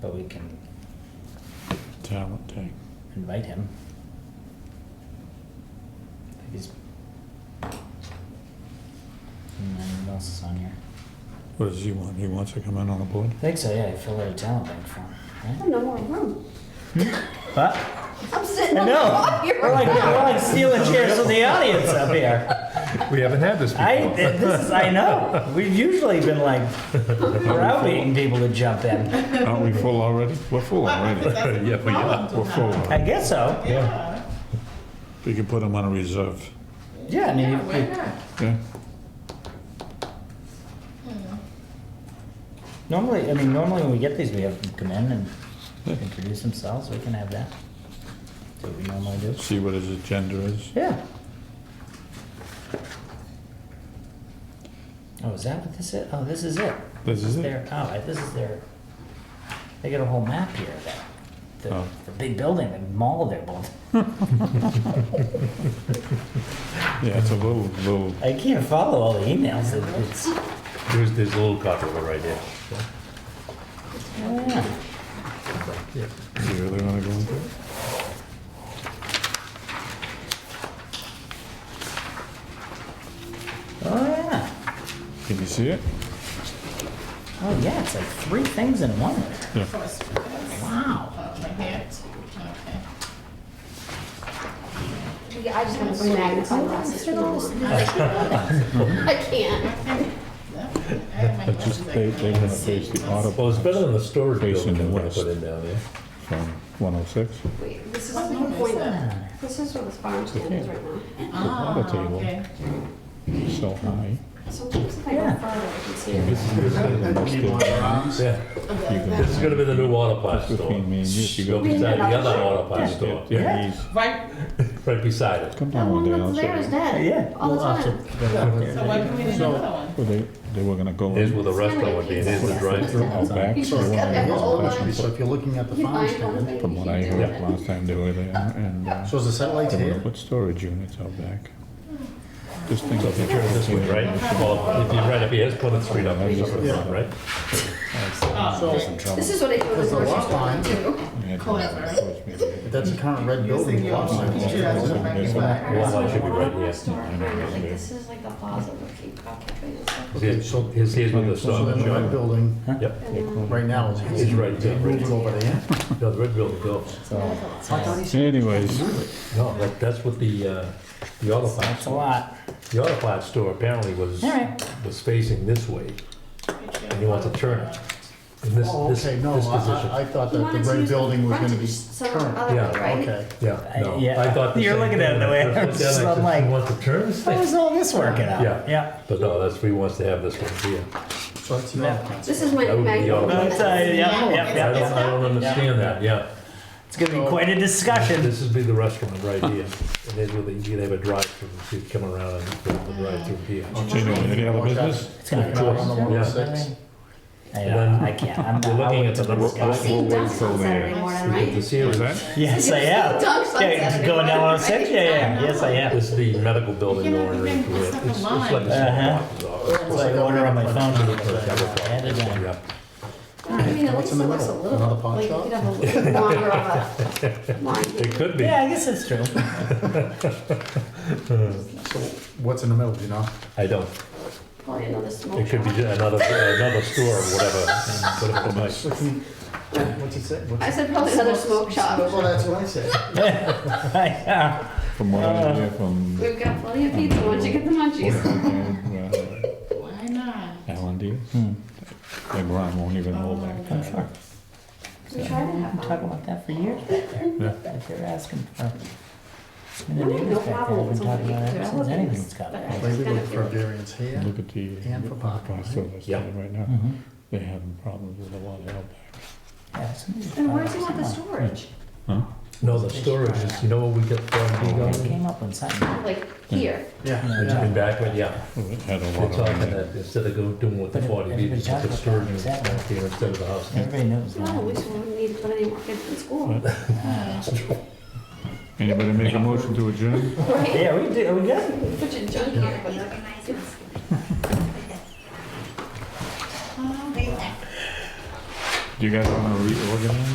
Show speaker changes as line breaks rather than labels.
But we can
talent tank.
invite him. If he's. And then what else is on here?
What does he want? He wants to come in on the board?
I think so, yeah, fill out a talent bank form, right?
have no more room.
What?
I'm sitting
I
on the
know,
floor.
we're like, we're like stealing chairs from the audience up here.
We haven't had this before.
I, this is, I know, we've usually been like browbeating people to jump in.
Aren't we full already? We're full already.
Yeah, we are.
We're full.
I guess so,
Yeah.
We could put him on a reserve.
yeah, I mean,
Yeah,
you-
why
you-
not?
Yeah.
normally, I mean, normally when we get these, we have them come in and introduce themselves, we can have that. That's what we normally do.
See what his agenda is.
Yeah. Oh, is that what this is? Oh, this is it.
This is it.
Their, oh, I- this is their, they got a whole map here, of that, the,
Oh.
the big building, the mall they're building.
Yeah, it's a little, little,
I can't follow all the emails, It- it's, oh,
There's, there's a little copy of it right there.
yeah.
do you really want to go into it?
oh, yeah.
Can you see it?
Oh, yeah, it's like three things in one.
First,
Wow.
uh, my hand. Okay.
Yeah, I just want to bring magnifying glasses for those. I can't.
I have my
It's just,
glasses, I
they,
can't
they're gonna
see.
face the
Well,
audible
it's better than the storage
Facing
building that we're gonna
west.
put in down there.
from 106.
Wait, this is
What
the
number is
point.
that?
This is where the farm stand is right now.
Ah,
water table.
okay.
So high.
Sometimes if I
Yeah.
go farther, I can see it.
This is, yeah, this is gonna be the new water plant store.
Between me and you, if you
Go
go.
beside the other water plant store,
Yeah, he's,
Right,
right beside it.
come
That
down one
one
day, I'll show
that's there is
you.
dead.
Yeah.
All the
we'll have to-
time.
so why couldn't we do another one?
Well, they, they were gonna go
Here's
in
where the restaurant would be, and here's the drive-through.
out back.
You
so
just
they
got
wanted
that
to
whole
go
line.
past
So
and
if you're looking at the
You
farm
find one
stand,
thing.
From what I heard last time they were there, and, uh,
so is the satellite
We're gonna
here?
put storage units out back. This thing.
So if you turn it this way, right, well, if you right up here, it's Plymouth Street up here, somewhere, right?
Oh,
This is what I do in the
There's a
grocery
lot
store
line.
too.
That's the current red building. the lot line.
Well, that should be right here.
Like, this is like the plaza where keep occupied and stuff.
Okay,
Here's,
so,
here's here's where the
so
store,
then the red
John.
building
Yep,
And then
right now is.
It's right there.
Move it over there.
no, the red building goes.
uh,
Anyways,
No, that, that's what the, uh, the auto
That's
parts,
a lot.
the auto parts store apparently was,
All right.
was facing this way, and he wants to turn it. In this,
Oh,
this,
okay, no,
this
I,
position.
I thought
He
that the
wanted to
red
use the
building was gonna be
frontage, so
current.
other way,
Yeah,
right?
Okay,
Yeah, no,
yeah.
I thought the
You're
same
looking at it the
thing.
way
I
I'm
looked
just-
at it, I
I'm
said,
like-
He wants to turn this
How
thing,
is all this working out?
Yeah.
Yeah.
but no, that's, he wants to have this one here.
so that's the other one.
This is my
That would be the
magnifying
other
No,
one.
it's,
glass.
uh, yeah,
Yeah.
yeah,
I
yeah,
don't,
yeah.
I don't understand that, yeah.
It's gonna be quite a discussion.
This would be the restaurant right here, and then with the, you'd have a drive-through, you'd come around and put the drive-through here.
Uh-huh.
anyway, any other business?
It's gonna be.
Choice.
I
On the
Yeah.
106.
know, I can't, I'm not.
We're looking at the-
I'll wait till
I've
this guy-
seen ducks on Saturday morning,
The
right?
What
Sears,
was that?
Yes, I am.
Dogs on
Yeah,
Saturday
going down
morning,
106,
right?
yeah, yeah, yes, I am.
this is the medical building
You
going
know,
right
you can
through it.
put
It's it's like
stuff
a
Uh-huh.
small box.
It's like ordering on my phone. I had it in.
Yeah,
I mean, at least it
in the
looks a
middle?
little,
Another pawn
like you
shop?
could have a little longer of a line.
it could be.
Yeah, I guess that's true.
So what's in the middle, do you know?
I don't,
Probably another small
it could
shop.
be ju- another, another store or whatever, whatever it might.
What's in- what's it say? What's
I
it-
said probably another smoke shop.
Well, that's what I said.
Yeah.
From what I hear from
We've got plenty of pizza once you get the munchies.
uh,
Why not?
Alan Diaz,
hmm.
and Ron won't even hold back.
I'm sure.
We try to have
Talk
fun.
about that for years back there. If they're asking for. And the
No,
neighbors
no
back there
problem.
have been
It's
talking
only
about it ever since
developing.
anything's got it.
But I
Maybe
just
look
kinda
for
feel-
variance here.
Look at the,
And for parking, right?
so that's
Yeah.
right now,
Mhm.
they're having problems with a lot of out back.
Yeah, somebody's
And where does he
probably
want the
somewhere.
storage?
No, the storage is, you know what we get from being
It
on?
came up on something.
Like here.
Yeah,
It's
yeah.
been back, but yeah,
Well, it had a
they're
lot
talking
on it.
that instead of go doing what the
But
forty B,
everybody
just put the
talks
storage
about
unit
that.
back there instead of the house.
Everybody knows
No, we
that.
just don't need to put any more kids in school.
Anybody make a motion to adjourn?
Right?
Yeah, we do, we got it.
Put your junk here, but not.
Oh, they-
Do you guys want to reorganize?